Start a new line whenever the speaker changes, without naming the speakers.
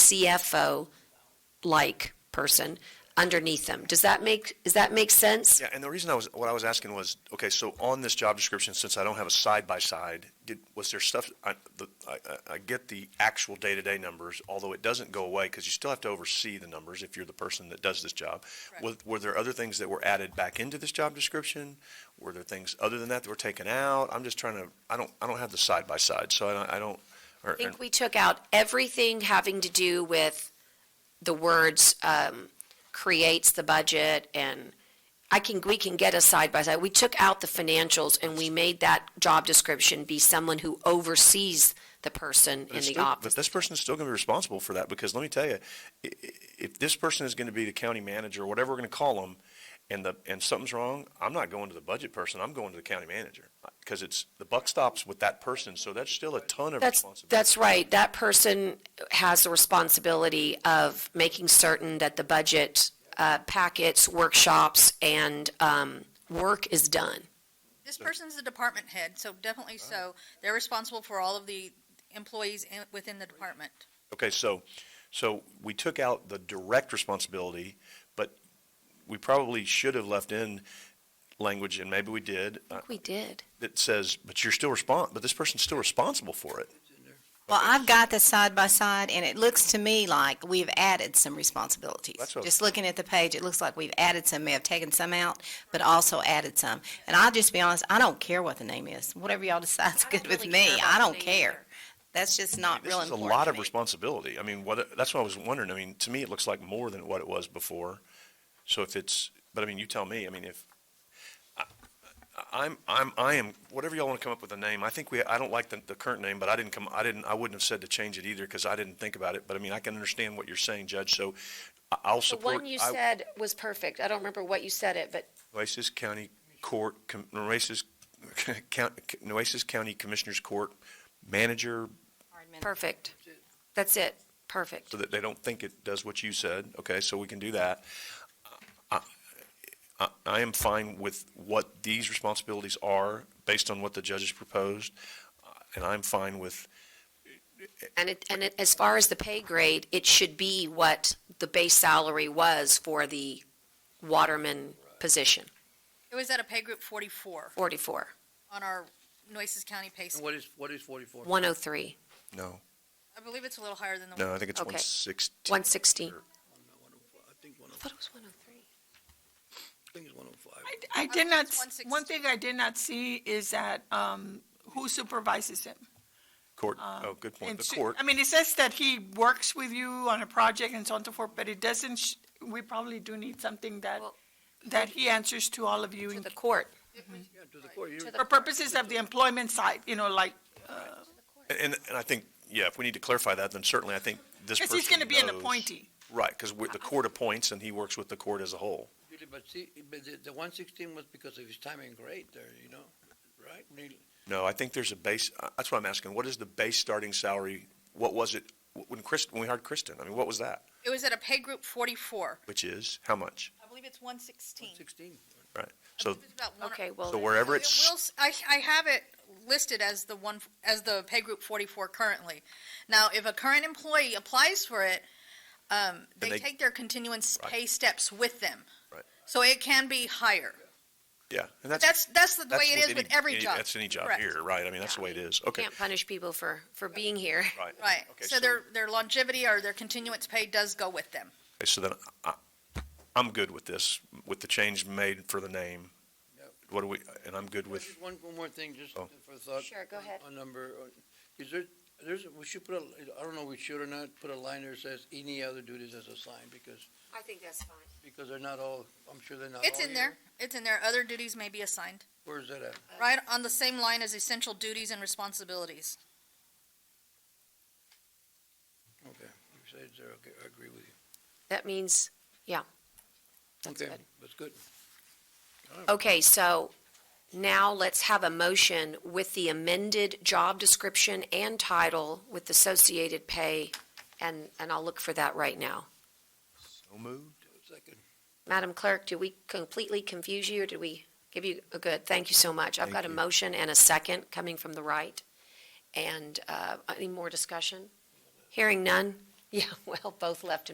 CFO-like person underneath them. Does that make, does that make sense?
Yeah, and the reason I was, what I was asking was, okay, so on this job description, since I don't have a side-by-side, did, was there stuff, I, the, I, I- I get the actual day-to-day numbers, although it doesn't go away, because you still have to oversee the numbers if you're the person that does this job. Was, were there other things that were added back into this job description? Were there things other than that that were taken out? I'm just trying to, I don't, I don't have the side-by-side, so I don't, I don't, or,
I think we took out everything having to do with the words, um, creates the budget and I can, we can get a side by side. We took out the financials and we made that job description be someone who oversees the person
But
in
it's
the
still-
office.
But this person is still going to be responsible for that, because let me tell you, i- i- if this person is going to be the county manager, or whatever we're going to call them, and the, and something's wrong, I'm not going to the budget person, I'm going to the county manager. Because it's, the buck stops with that person, so that's still a ton of
That's,
responsibility.
that's right. That person has the responsibility of making certain that the budget uh, packets, workshops, and um, work is done.
This person's the department head, so
Oh.
definitely so. They're responsible for all of the employees in, within the department.
Okay, so, so we took out the direct responsibility, but we probably should have left in language, and maybe we did,
I
uh,
think we did.
that says, but you're still respon, but this person's still responsible for it.
Well, I've got the side by side, and it looks to me like we've added some responsibilities.
That's what-
Just looking at the page, it looks like we've added some, may have taken some out, but also added some. And I'll just be honest, I don't care what the name is. Whatever y'all decide's
don't
good with
really
me.
care about
I
the
don't
name
care. That's just not
This
real
is a
important.
lot of
to me.
responsibility. I mean, what, that's what I was wondering. I mean, to me, it looks like more than what it was before. So if it's, but I mean, you tell me, I mean, if, I- I'm, I'm, I am, whatever y'all want to come up with a name, I think we, I don't like the, the current name, but I didn't come, I didn't, I wouldn't have said to change it either because I didn't think about it. But I mean, I can understand what you're saying, Judge, so I- I'll
The
support.
one you
I-
said was perfect. I don't remember what you said it, but
Nueces County Court, Com- Nueces, Count- Nueces County Commissioners Court Manager,
perfect. That's it. Perfect.
so that they don't think it does what you said. Okay, so we can do that. I- I I am fine with what these responsibilities are based on what the judges proposed, uh, and I'm fine with,
And it, and it, as far as the pay grade, it should be what the base salary was for the waterman position,
It was at a pay group forty-four
44,
on our Noises County pay
And
scale.
what is, what is forty-four?
103,
no,
I believe it's a little higher than the.
no, I think it's
Okay.
160.
116.
I think one oh,
I thought it was 103.
I think it's one oh five.
I- I did not,
One six-
one thing I did not see is that, um, who supervises him?
Court, oh, good point,
Um, And
the
su-
court.
I mean, it says that he works with you on a project and so on and so forth, but it doesn't, sh- we probably do need something that,
Well-
that he answers to all of you
To
in-
the court.
Yeah, to the court, you're,
To the
for purposes of the employment side, you know, like,
And, and I think, yeah, if we need to clarify that, then certainly I think this
because
person
he's gonna be an
knows-
appointee. Uh-huh.
Right, because the court appoints and he works with the court as a whole.
Julie, but see, but the, the one sixteen was because of his time in grade there, you know, right? Neil?
No, I think there's a base, uh, that's what I'm asking. What is the base starting salary? What was it when Chris, when we hired Kristen? I mean, what was that?
It was at a pay group forty-four.
Which is, how much?
I believe it's one sixteen.
Sixteen.
Right. So,
Okay, well.
so wherever
It will,
it's,
s- I, I have it listed as the one, as the pay group forty-four currently. Now, if a current employee applies for it, um,
they-
they take their continuance
Right.
pay steps with them.
Right.
So it can be higher.
yeah, and that's,
That's, that's the way
that's
it
with
is with
any-
every
any-
job.
That's any job
Correct.
here, right? I mean, that's the way it is. Okay.
Can't punish people for, for being here.
Right,
Okay,
so their, their longevity or their continuance pay does go with them.
okay, So then I, I'm good with this, with the change made for the name.
Yep.
What do we, and I'm good with,
Just one, one more thing, just
Oh.
for thought.
Sure, go
on-
ahead.
On number, on- is there, there's, we should put a, I don't know, we should or not, put a line there that says any other duties as assigned, because,
I think that's fine.
because they're not all, I'm sure they're
Oh,
not all.
It's in there,
here.
it's in there, other duties may be assigned,
Where's that at?
right on the same line as essential duties and responsibilities.
Okay, you said it's there, okay, I agree with you.
That means, yeah. That's
Okay,
good.
That's good.
Okay, so now let's have a motion with the amended job description and title with associated pay, and, and I'll look for that right now.
no move?
Second.
Madam Clerk, did we completely confuse you, or did we give you a good, thank you so much. I've got a motion and a second coming from the right. And uh, any more discussion? Hearing none. Yeah, well, both left and